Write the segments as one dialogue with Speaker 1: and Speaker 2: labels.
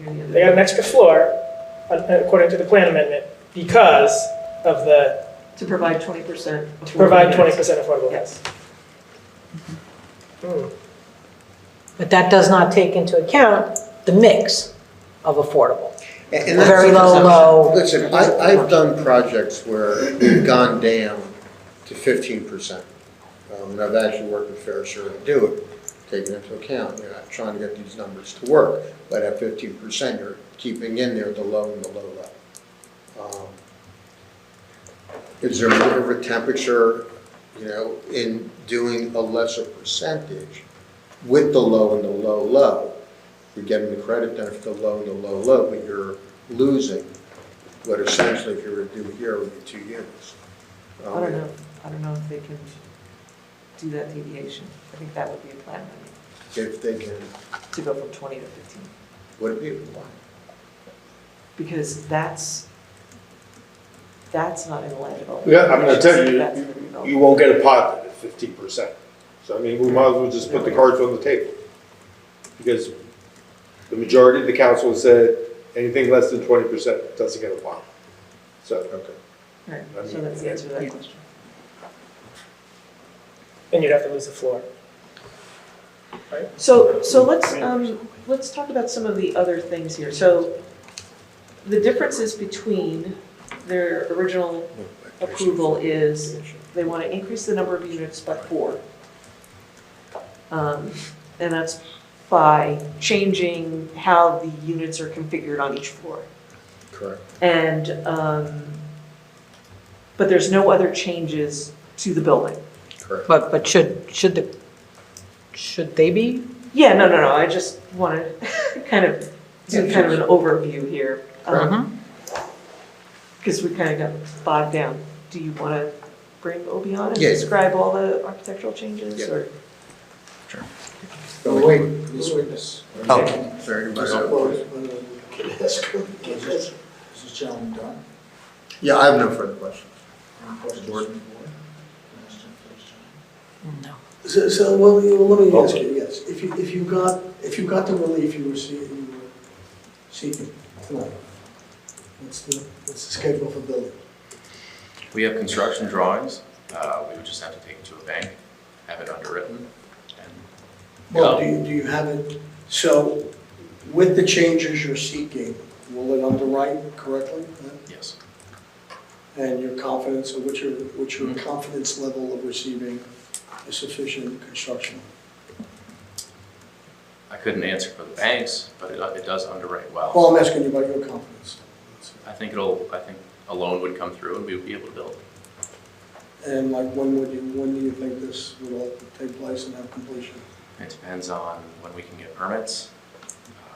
Speaker 1: They got an extra floor, uh, according to the plan amendment, because of the,
Speaker 2: To provide twenty percent.
Speaker 1: to provide twenty percent affordable housing. Hmm.
Speaker 3: But that does not take into account the mix of affordable.
Speaker 4: And-
Speaker 3: A
Speaker 4: and that's-
Speaker 3: very low, low.
Speaker 4: Listen, I, I've done projects where we've gone down to fifteen percent. Um, and I've actually worked with Fair Share to do it, taking into account, you're not trying to get these numbers to work, but at fifteen percent, you're keeping in there the low and the low level. Um, Is there more of a temperature, you know, in doing a lesser percentage with the low and the low low? You're getting the credit then for the low and the low low, but you're losing what essentially if you were to do here would be two units. Oh, Um,
Speaker 2: I don't know, I don't know if they can do that deviation. I think that would be a plan, I
Speaker 4: If they can,
Speaker 2: mean, to go from twenty to fifteen.
Speaker 4: would it be, why?
Speaker 2: Because that's, that's not in the land development.
Speaker 5: Yeah, I'm gonna tell you,
Speaker 2: That's in the
Speaker 5: you,
Speaker 2: development.
Speaker 5: you won't get a pot at fifteen percent. So I mean, we might as well just put the cards on the table. Because the majority of the council said anything less than twenty percent doesn't get a pot. So,
Speaker 4: okay.
Speaker 2: Right, so that's the answer to that question.
Speaker 1: And you'd have to lose the floor.
Speaker 2: So, so let's, um, let's talk about some of the other things here. So the differences between their original approval is they want to increase the number of units by four. Um, And that's by changing how the units are configured on each floor.
Speaker 4: Correct.
Speaker 2: And, um, but there's no other changes to the building.
Speaker 4: Correct.
Speaker 3: But, but should, should the, should they be?
Speaker 2: Yeah, no, no, no, I just wanted kind of, do kind of an overview here. Because we kind of got bogged down. Do you want to bring Obi on and
Speaker 4: Yeah.
Speaker 2: describe all the architectural changes
Speaker 4: Yeah.
Speaker 2: or?
Speaker 4: Oh, wait, this witness.
Speaker 2: Oh.
Speaker 4: Sorry,
Speaker 6: This
Speaker 4: my bad.
Speaker 6: is gentleman done.
Speaker 4: Yeah, I have no further questions.
Speaker 6: Any questions from the board?
Speaker 3: No.
Speaker 7: So, so, well, you- well, let me ask you, yes, if you, if you got, if you got the relief you were seeking, you were seeking tonight, what's the, what's the schedule for building?
Speaker 8: We have construction drawings, uh, we would just have to take it to a bank, have it underwritten, and
Speaker 7: Well,
Speaker 8: No.
Speaker 7: do you, do you have it, so, with the changes you're seeking, will it underwrite correctly?
Speaker 8: yes,
Speaker 7: And your confidence, or what's your, what's your
Speaker 8: Mhm.
Speaker 7: confidence level of receiving a sufficient construction?
Speaker 8: I couldn't answer for the banks, but it, it does underwrite well.
Speaker 7: Well, I'm asking you about your confidence.
Speaker 8: I think it'll, I think a loan would come through and we would be able to build.
Speaker 7: And like, when would you, when do you think this would all take place and have completion?
Speaker 8: It depends on when we can get permits.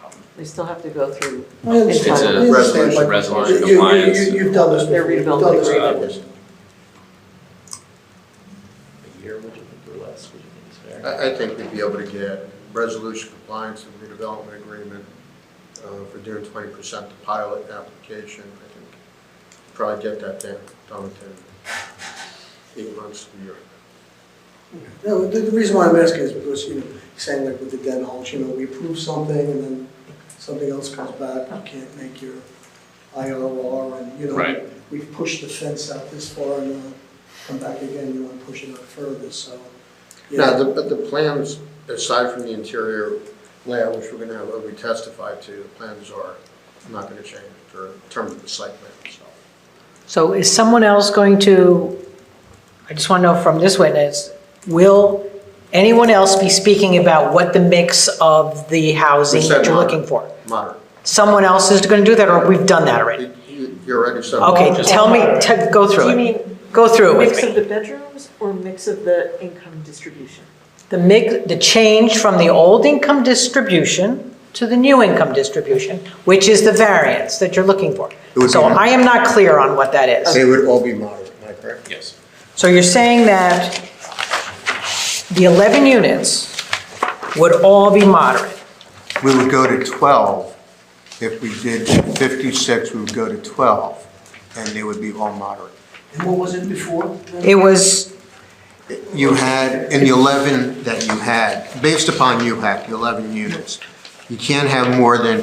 Speaker 8: Um,
Speaker 2: They still have to go through.
Speaker 7: I
Speaker 8: It's
Speaker 7: understand.
Speaker 8: a resolution, resolution
Speaker 7: You- you-
Speaker 8: compliance,
Speaker 7: you- You've done this
Speaker 2: They're
Speaker 7: before. You've
Speaker 2: rebuilding
Speaker 7: done
Speaker 2: the
Speaker 7: this
Speaker 8: ground.
Speaker 7: before.
Speaker 8: a year, would you think, or less, would you think is fair?
Speaker 4: I, I think we'd be able to get resolution compliance and redevelopment agreement uh, for doing twenty percent to pilot application. I think probably get that done, done within eight months to a year.
Speaker 7: No, the, the reason why I'm asking is because, you know, saying like with the den hulls, you know, we approve something and then something else comes back, you can't make your IRR and, you know.
Speaker 8: Right.
Speaker 7: We've pushed the fence out this far and, uh, come back again, you wanna push it out further, so. you
Speaker 4: Now,
Speaker 7: know,
Speaker 4: the, but the plans, aside from the interior layout, which we're gonna have Obi testify to, the plans are not gonna change for, in terms of the site plan itself.
Speaker 3: So is someone else going to, I just want to know from this witness, will anyone else be speaking about what the mix of the housing
Speaker 4: We said
Speaker 3: that you're
Speaker 4: moderate.
Speaker 3: looking for?
Speaker 4: Moderate.
Speaker 3: Someone else is going to do that, or we've done that already?
Speaker 4: You- you- You're already said.
Speaker 3: Okay,
Speaker 4: moderate.
Speaker 3: tell me, te- go
Speaker 2: Do
Speaker 3: through
Speaker 2: you
Speaker 3: it.
Speaker 2: mean
Speaker 3: Go through it with
Speaker 2: mix of
Speaker 3: me.
Speaker 2: the bedrooms or mix of the income distribution?
Speaker 3: The mix, the change from the old income distribution to the new income distribution, which is the variance that you're looking for.
Speaker 4: It would
Speaker 3: So
Speaker 4: be-
Speaker 3: I am not clear on what that is.
Speaker 4: They would all be moderate, am I correct?
Speaker 8: Yes,
Speaker 3: So you're saying that the 11 units would all be moderate?
Speaker 4: We would go to 12. If we did 56, we would go to 12, and they would be all moderate.
Speaker 7: And what was it before?
Speaker 3: It was,
Speaker 4: You had, in the 11 that you had, based upon you had, the 11 units, you can't have more than